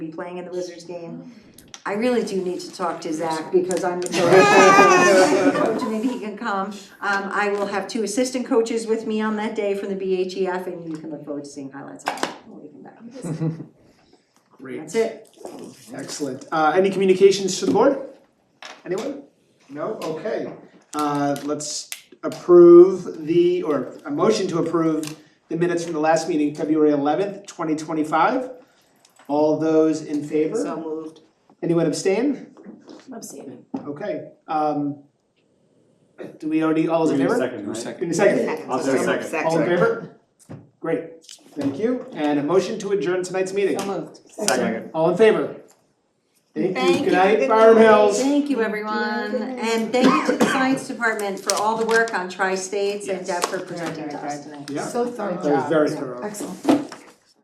playing in the Wizards game. I really do need to talk to Zach because I'm the coach, coach, and maybe he can come. Um, I will have two assistant coaches with me on that day from the BHEF, and you can look forward to seeing highlights on that. when we come back. Great, That's it. excellent. Uh, any communications to the board? Anyone? No? Okay. Uh, let's approve the, or a motion to approve the minutes from the last meeting, February eleventh, twenty twenty-five. All those in favor? moved. Anyone abstain? Abstaining. Okay, um, do we already, all those in Give me a favor? second, right? Give me a second. I'll say second. All in favor? Great, thank you, and a motion to adjourn tonight's meeting. moved. Second. All in favor? Thank Thank you, you. good night, Good Farm Hills. Thank you, everyone, and thank you to the science department for all the work on tri-states and Deb for presenting to us tonight. Yeah, So thorough. that was very thorough. Excellent.